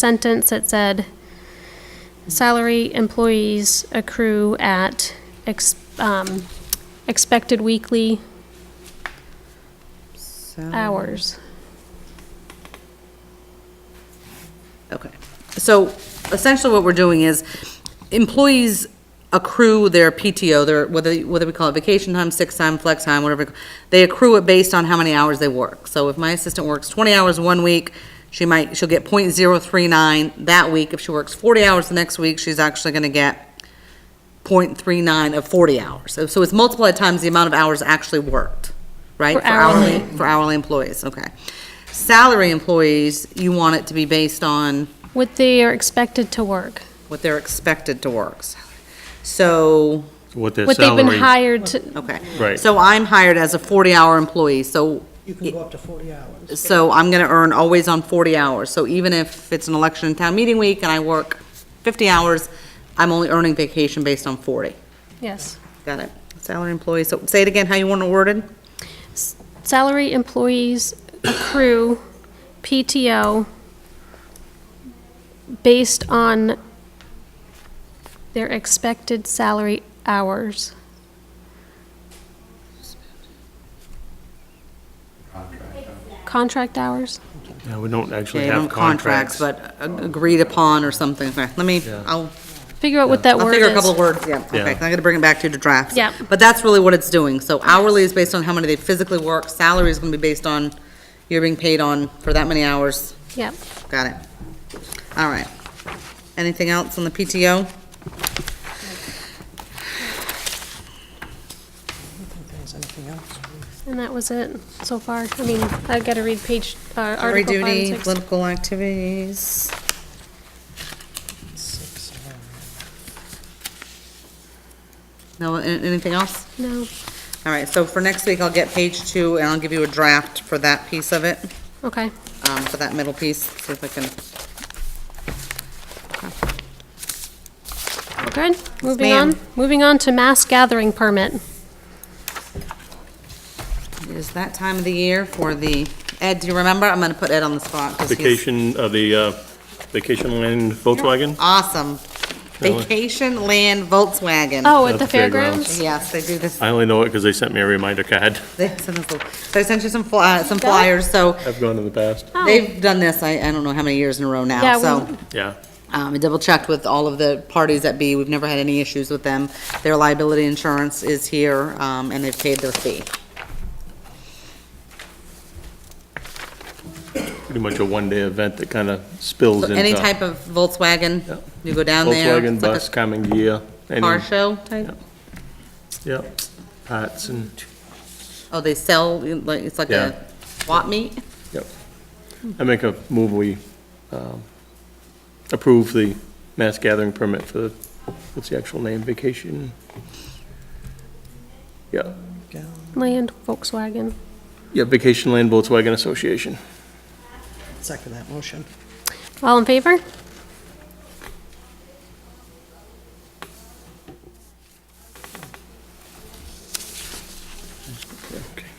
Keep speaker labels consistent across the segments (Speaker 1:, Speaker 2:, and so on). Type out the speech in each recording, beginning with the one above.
Speaker 1: sentence that said, salary employees accrue at ex- um, expected weekly hours.
Speaker 2: Okay, so essentially what we're doing is employees accrue their PTO, their, whether, whether we call it vacation time, sick time, flex time, whatever, they accrue it based on how many hours they work. So if my assistant works twenty hours one week, she might, she'll get point zero three nine that week. If she works forty hours the next week, she's actually gonna get point three nine of forty hours. So, so it's multiplied times the amount of hours actually worked, right?
Speaker 1: For hourly.
Speaker 2: For hourly employees, okay. Salary employees, you want it to be based on?
Speaker 1: What they are expected to work,
Speaker 2: what they're expected to work. So,
Speaker 3: What their
Speaker 1: what they've been
Speaker 3: salary,
Speaker 1: hired to,
Speaker 2: okay.
Speaker 3: Right.
Speaker 2: So I'm hired as a 40-hour employee, so,
Speaker 4: You can go up to 40 hours.
Speaker 2: so I'm going to earn always on 40 hours. So even if it's an election and town meeting week and I work 50 hours, I'm only earning vacation based on 40.
Speaker 1: yes.
Speaker 2: Got it? Salary employee, so say it again, how you want it worded?
Speaker 1: Salary employees accrue PTO based on their expected salary hours. Contract hours?
Speaker 3: Yeah, we don't actually
Speaker 2: Okay, I don't
Speaker 3: have contracts.
Speaker 2: But a- agreed upon or something. Okay, Let me,
Speaker 3: Yeah.
Speaker 2: I'll
Speaker 1: Figure out what that
Speaker 2: I'll
Speaker 1: word
Speaker 2: figure a couple of
Speaker 1: is.
Speaker 2: words, yeah, okay,
Speaker 3: Yeah.
Speaker 2: I'm gonna bring it back to you to drafts.
Speaker 1: Yeah.
Speaker 2: But that's really what it's doing, so hourly is based on how many they physically work, salary is gonna be based on, you're being paid on for that many hours,
Speaker 1: Yep.
Speaker 2: got it. All right, anything else on the PTO?
Speaker 4: There's anything else?
Speaker 1: And that was it so far. I mean, I gotta read page, uh,
Speaker 2: Jury
Speaker 1: Article five and
Speaker 2: duty,
Speaker 1: six.
Speaker 2: political activities,
Speaker 4: Six, all
Speaker 2: no, a- anything else?
Speaker 1: No,
Speaker 2: All right, so for next week, I'll get page two, and I'll give you a draft for that piece of it,
Speaker 1: okay.
Speaker 2: um, for that middle piece, see if I can,
Speaker 1: We're good. Moving
Speaker 2: ma'am.
Speaker 1: on, moving on to mass gathering permit.
Speaker 2: it is that time of the year for the, Ed, do you remember? I'm gonna put Ed on the spot. 'cause he's-
Speaker 3: Vacation, uh, the, uh, vacation land Volkswagen?
Speaker 2: Awesome.
Speaker 3: Really?
Speaker 2: Vacation Land Volkswagen.
Speaker 1: Oh, at
Speaker 3: At
Speaker 1: the
Speaker 3: the fairgrounds.
Speaker 1: fairgrounds?
Speaker 2: Yes, they do this,
Speaker 3: I only know it because they sent me a reminder card.
Speaker 2: they send us, little- so I sent you some fly, uh, some flyers, so
Speaker 3: I've gone in the past.
Speaker 1: Oh.
Speaker 2: they've done this, I, I don't know how many years in a row
Speaker 1: Yeah,
Speaker 2: now,
Speaker 1: we-
Speaker 2: so.
Speaker 3: Yeah,
Speaker 2: Um, I double checked with all of the parties at B, we've never had any issues with them. Their liability insurance is here, um, and they've paid their fee.
Speaker 3: pretty much a one-day event that kind of spills
Speaker 2: So
Speaker 3: into.
Speaker 2: any type of
Speaker 3: Yeah.
Speaker 2: Volkswagen, you go down there.
Speaker 3: Volkswagen
Speaker 2: it's like a
Speaker 3: bus coming gear. any-
Speaker 2: Car show type,
Speaker 3: Yeah. Yep, parts and,
Speaker 2: oh, they sell, like, it's like
Speaker 3: Yeah.
Speaker 2: a swap meet?
Speaker 3: yep. I make a move, we um, approve the mass gathering permit for, the what's the actual name, vacation? Yeah,
Speaker 4: right.
Speaker 1: Mm-hmm. Land Volkswagen.
Speaker 3: yeah, Vacation Land Volkswagen Association.
Speaker 4: Second that motion.
Speaker 1: All in favor?
Speaker 3: Okay.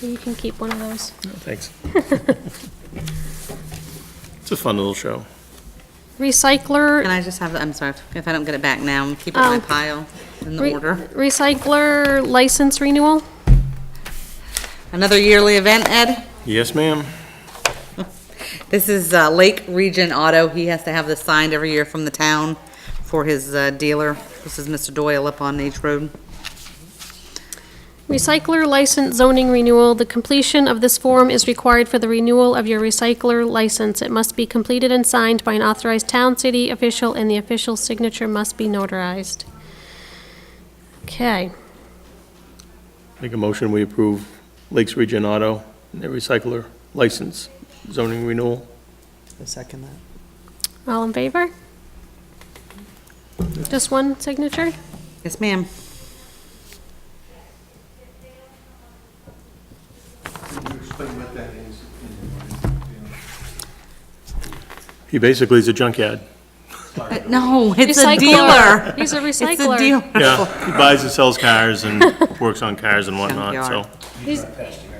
Speaker 1: You can keep one of those.
Speaker 3: Thanks. It's a fun little show.
Speaker 2: Can
Speaker 1: Recycler,
Speaker 2: I just have, the- I'm sorry, if I don't get it back now, I'm keeping my
Speaker 1: Oh.
Speaker 2: pile in the
Speaker 1: re-
Speaker 2: order.
Speaker 1: recycler license renewal?
Speaker 2: Another yearly event, Ed.
Speaker 3: Yes, ma'am.
Speaker 2: This is uh, Lake Region Auto. He has to have this signed every year from the town for his uh, dealer. This is Mr. Doyle up on H Road.
Speaker 1: Recycler license zoning renewal. The completion of this form is required for the renewal of your recycler license. It must be completed and signed by an authorized town city official, and the official signature must be notarized. Okay,
Speaker 3: Make a motion, we approve Lakes Region Auto, and their recycler license zoning renewal.
Speaker 4: I second that.
Speaker 1: all in favor? Just one signature?
Speaker 2: Yes, ma'am.
Speaker 5: explain what that is
Speaker 3: He basically is a junkyard.
Speaker 2: Uh, No, it's a
Speaker 1: Recycler.
Speaker 2: dealer.
Speaker 1: He's a
Speaker 2: It's a
Speaker 1: recycler.
Speaker 2: dealer.
Speaker 3: Yeah, he buys and sells cars and works on cars and whatnot, so.
Speaker 2: Junkyard.
Speaker 1: These-